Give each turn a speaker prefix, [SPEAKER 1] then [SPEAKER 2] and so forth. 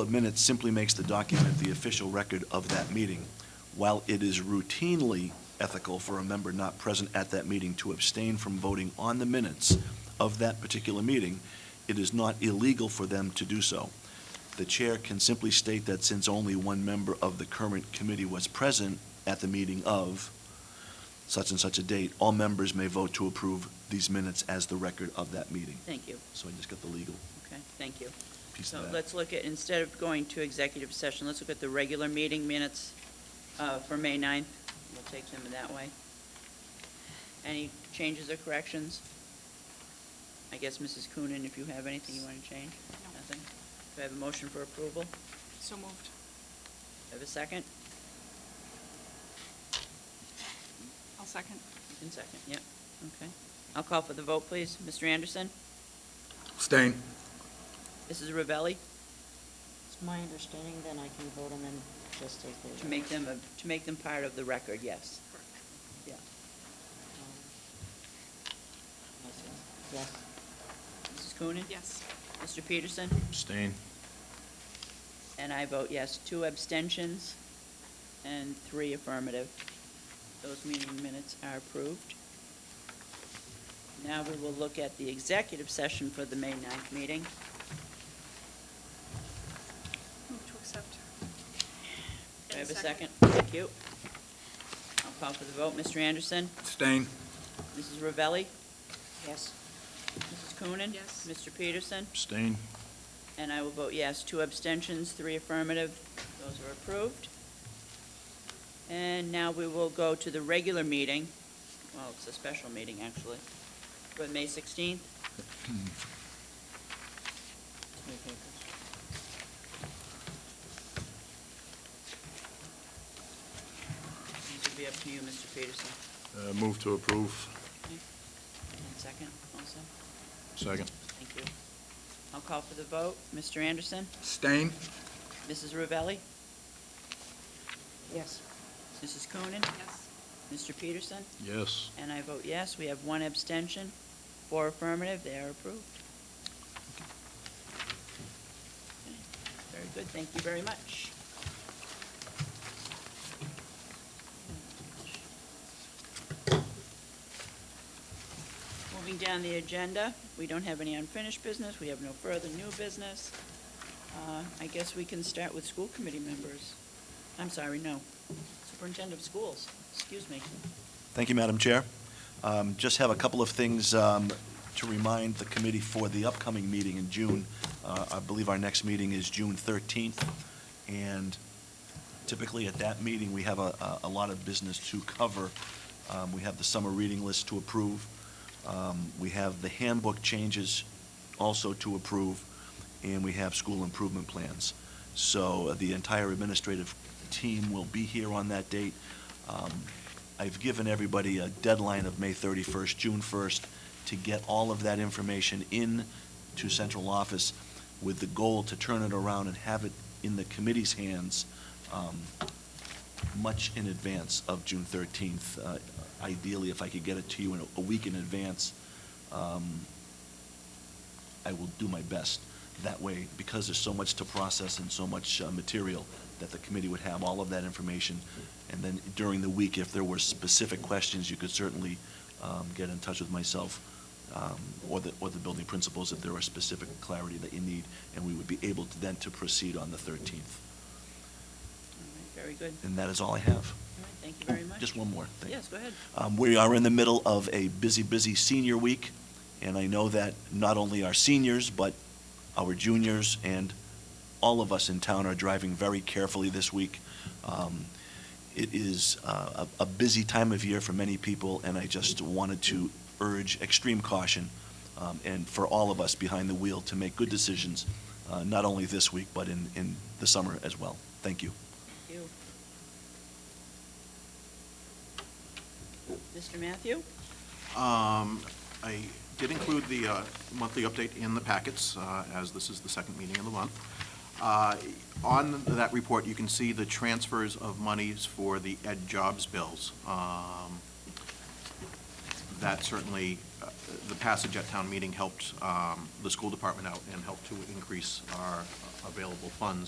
[SPEAKER 1] of minutes simply makes the document the official record of that meeting. While it is routinely ethical for a member not present at that meeting to abstain from voting on the minutes of that particular meeting, it is not illegal for them to do so. The chair can simply state that since only one member of the current committee was present at the meeting of such and such a date, all members may vote to approve these minutes as the record of that meeting.
[SPEAKER 2] Thank you,
[SPEAKER 1] So I just got the legal
[SPEAKER 2] okay, thank you.
[SPEAKER 1] piece
[SPEAKER 2] So
[SPEAKER 1] of that.
[SPEAKER 2] let's look at, instead of going to executive session, let's look at the regular meeting minutes uh, for May 9th. We'll take them that way. Any changes or corrections? I guess, Mrs. Coonan, if you have anything you want to change?
[SPEAKER 3] No.
[SPEAKER 2] Nothing? Do I have a motion for approval? Do
[SPEAKER 3] So moved.
[SPEAKER 2] I have a second?
[SPEAKER 3] I'll second.
[SPEAKER 2] You can second, yep, okay. I'll call for the vote, please. Mr. Anderson?
[SPEAKER 4] Stain.
[SPEAKER 2] Mrs. Ravelli?
[SPEAKER 5] It's my understanding then I can vote on them just as they are.
[SPEAKER 2] To make them, a- to make them part of the record, yes. Yeah.
[SPEAKER 5] Yes,
[SPEAKER 2] Mrs. Coonan?
[SPEAKER 3] Yes.
[SPEAKER 2] Mr. Peterson?
[SPEAKER 4] Stain.
[SPEAKER 2] And I vote yes. Two abstentions and three affirmative. Those meeting minutes are approved. Now we will look at the executive session for the May 9th meeting.
[SPEAKER 3] Move to accept.
[SPEAKER 2] Do I have a second?
[SPEAKER 3] Second.
[SPEAKER 2] Thank you. I'll call for the vote. Mr. Anderson?
[SPEAKER 4] Stain.
[SPEAKER 2] Mrs. Ravelli?
[SPEAKER 5] yes,
[SPEAKER 2] Mrs. Coonan?
[SPEAKER 3] Yes.
[SPEAKER 2] Mr. Peterson?
[SPEAKER 4] Stain.
[SPEAKER 2] And I will vote yes. Two abstentions, three affirmative. Those are approved. And now we will go to the regular meeting. Well, it's a special meeting, actually, but May 16th. These will be up to you, Mr. Peterson.
[SPEAKER 4] Uh, Move to approve.
[SPEAKER 2] And second also.
[SPEAKER 4] Second.
[SPEAKER 2] Thank you. I'll call for the vote. Mr. Anderson?
[SPEAKER 4] Stain.
[SPEAKER 2] Mrs. Ravelli?
[SPEAKER 5] yes.
[SPEAKER 2] Mrs. Coonan?
[SPEAKER 3] Yes.
[SPEAKER 2] Mr. Peterson?
[SPEAKER 4] Yes.
[SPEAKER 2] And I vote yes. We have one abstention, four affirmative, they are approved. Very good, thank you very much. Moving down the agenda, we don't have any unfinished business, we have no further new business. Uh, I guess we can start with school committee members. I'm sorry, no, superintendent of schools, excuse me.
[SPEAKER 1] Thank you, Madam Chair. Um, Just have a couple of things um, to remind the committee for the upcoming meeting in June. Uh, I believe our next meeting is June 13th, and typically at that meeting, we have a a- a lot of business to cover. Um, We have the summer reading list to approve. Um, We have the handbook changes also to approve, and we have school improvement plans. So uh, the entire administrative team will be here on that date. Um, I've given everybody a deadline of May 31st, June 1st, to get all of that information in to central office with the goal to turn it around and have it in the committee's hands um, much in advance of June 13th. Uh, Ideally, if I could get it to you in a- a week in advance, um, I will do my best. That way, because there's so much to process and so much uh, material, that the committee would have all of that information. And then during the week, if there were specific questions, you could certainly um, get in touch with myself um, or the, or the building principals if there were specific clarity that you need, and we would be able to then to proceed on the 13th.
[SPEAKER 2] All right, Very good.
[SPEAKER 1] And that is all I have.
[SPEAKER 2] All right, Thank you very much.
[SPEAKER 1] Oh, Just one more thing.
[SPEAKER 2] Yes, go ahead.
[SPEAKER 1] Um, We are in the middle of a busy, busy senior week, and I know that not only our seniors, but our juniors and all of us in town are driving very carefully this week. Um, It is uh, a a busy time of year for many people, and I just wanted to urge extreme caution um, and for all of us behind the wheel to make good decisions, uh, not only this week, but in, in the summer as well. Thank you.
[SPEAKER 2] You. Mr. Matthew?
[SPEAKER 6] Um, I did include the uh, monthly update in the packets, uh, as this is the second meeting of the month. Uh, On that report, you can see the transfers of monies for the Ed Jobs bills. Um, That certainly, uh, the passage at town meeting helped um, the school department out and helped to increase our available funds